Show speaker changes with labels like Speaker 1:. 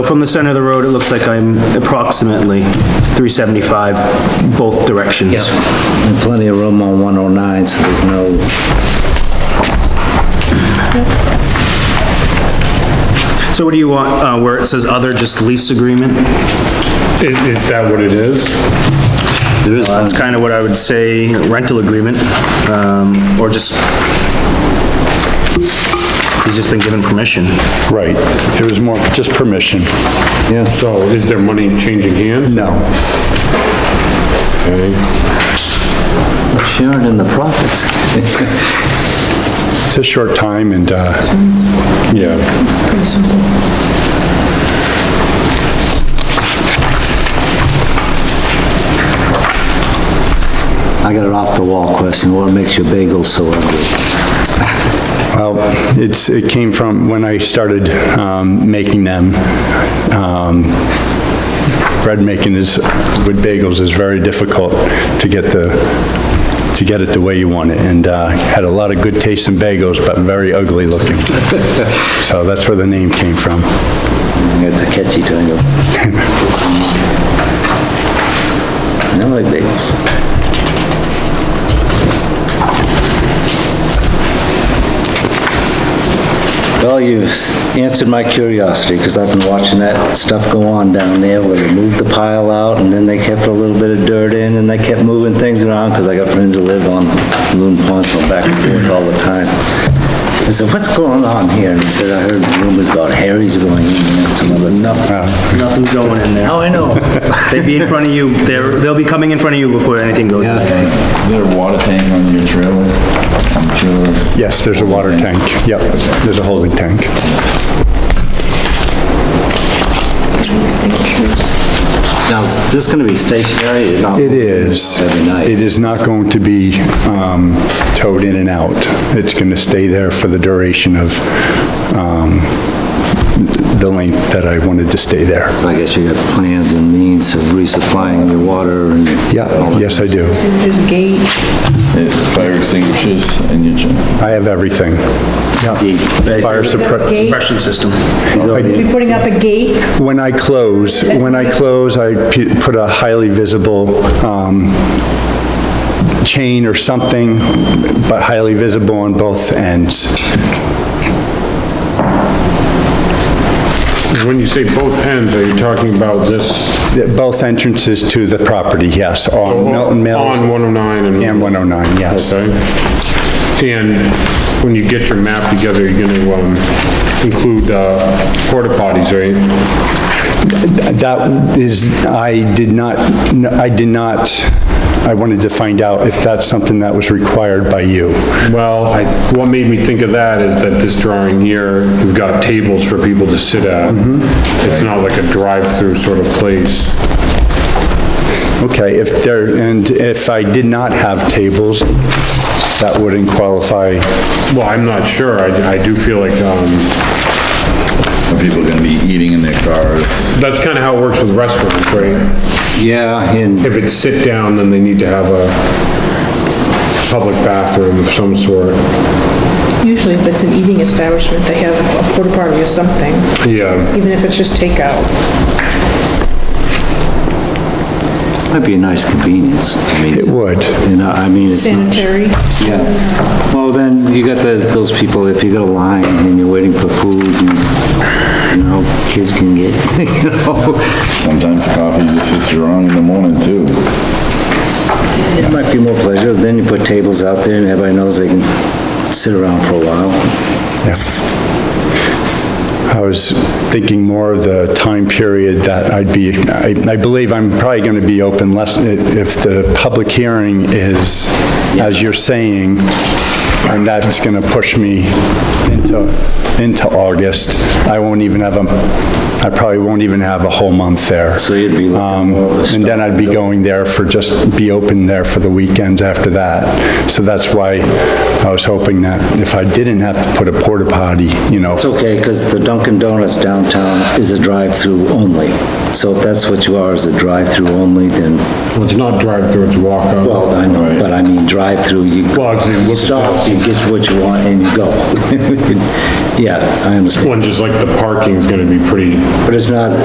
Speaker 1: From the center of the road, it looks like I'm approximately 375 both directions.
Speaker 2: And plenty of room on 109, so there's no,
Speaker 1: So what do you want, uh, where it says other, just lease agreement?
Speaker 3: Is, is that what it is?
Speaker 1: That's kind of what I would say, rental agreement, um, or just, he's just been given permission.
Speaker 4: Right. It was more just permission.
Speaker 2: yeah,
Speaker 3: So is there money changing hands?
Speaker 4: No.
Speaker 3: Okay.
Speaker 2: sharing in the profits.
Speaker 4: It's a short time and, uh,
Speaker 3: Yeah.
Speaker 5: It's pretty simple.
Speaker 2: I got an off-the-wall question, what makes your bagel so ugly?
Speaker 4: well, it's, it came from when I started, um, making them. Um, Bread making is, with bagels is very difficult to get the, to get it the way you want it. And, uh, had a lot of good taste in bagels, but very ugly looking. So that's where the name came from.
Speaker 2: It's a catchy title. I like bagels. Well, you've answered my curiosity, because I've been watching that stuff go on down there, where they moved the pile out, and then they kept a little bit of dirt in, and they kept moving things around, because I got friends who live on Loon Pond, so back and forth all the time. I said, "What's going on here?" And he said, "I heard rumors about Harry's going in and some other nuts."
Speaker 1: Nothing's going in there.
Speaker 2: Now I know.
Speaker 1: They'd be in front of you, they're, they'll be coming in front of you before anything goes in.
Speaker 6: Is there a water tank on your trailer? I'm sure.
Speaker 4: Yes, there's a water tank. Yep, there's a holding tank.
Speaker 2: Now, is this gonna be stationary? You're not
Speaker 4: It
Speaker 2: moving
Speaker 4: is.
Speaker 2: Every night?
Speaker 4: It is not going to be um, towed in and out. It's going to stay there for the duration of um, the length that I wanted to stay there.
Speaker 2: So I guess you got plans and means of resupplying the water and...
Speaker 4: Yeah, yes, I do.
Speaker 5: There's a gate.
Speaker 6: It- Fire extinguishers in your trailer?
Speaker 4: I have everything. Fire suppress,
Speaker 5: Gate.
Speaker 1: Suppression system.
Speaker 5: Be putting up a gate.
Speaker 4: when I close, when I close, I pu- put a highly visible um, chain or something, but highly visible on both ends.
Speaker 3: When you say both ends, are you talking about this
Speaker 4: Both entrances to the property, yes, on Milton Mills.
Speaker 3: on 109 and...
Speaker 4: And 109, yes.
Speaker 3: Okay. And when you get your map together, you're gonna, um, include, uh, porta potties, right?
Speaker 4: That is, I did not, I did not, I wanted to find out if that's something that was required by you.
Speaker 3: Well, I, what made me think of that is that this drawing here, you've got tables for people to sit at. It's not like a drive-through sort of place.
Speaker 4: Okay, if there, and if I did not have tables, that wouldn't qualify.
Speaker 3: Well, I'm not sure. I, I do feel like, um,
Speaker 6: Are people gonna be eating in their cars?
Speaker 3: that's kind of how it works with restaurants, right?
Speaker 2: Yeah, and
Speaker 3: If it's sit down, then they need to have a public bathroom of some sort.
Speaker 5: Usually if it's an eating establishment, they have a porta potty or something,
Speaker 3: Yeah,
Speaker 5: even if it's just takeout.
Speaker 2: might be a nice convenience. I
Speaker 4: It
Speaker 2: mean,
Speaker 4: would.
Speaker 2: you know, I mean, it's...
Speaker 5: Sanitary.
Speaker 2: Yeah. Well, then, you got the, those people, if you got a line and you're waiting for food and, you know, kids can get, you know,
Speaker 6: Sometimes coffee just hits you wrong in the morning too.
Speaker 2: it might be more pleasure. Then you put tables out there and everybody knows they can sit around for a while.
Speaker 4: Yeah. I was thinking more of the time period that I'd be, I I believe I'm probably going to be open less, if the public hearing is, as you're saying, and that's going to push me into, into August, I won't even have a, I probably won't even have a whole month there.
Speaker 2: So you'd be looking
Speaker 4: Um,
Speaker 2: more of a
Speaker 4: And then I'd be going there for, just be open there for the weekends after that. So that's why I was hoping that if I didn't have to put a porta potty, you know,
Speaker 2: It's okay, because the Dunkin' Donuts downtown is a drive-through only. So if that's what you are, is a drive-through only, then,
Speaker 3: well, it's not drive-through, it's walk-up.
Speaker 2: well, I know, but I mean, drive-through, you
Speaker 3: Well, it's- it looks-
Speaker 2: stop you get what you want and you go. Yeah, I understand,
Speaker 3: One, just like the parking's gonna be pretty
Speaker 2: but it's not,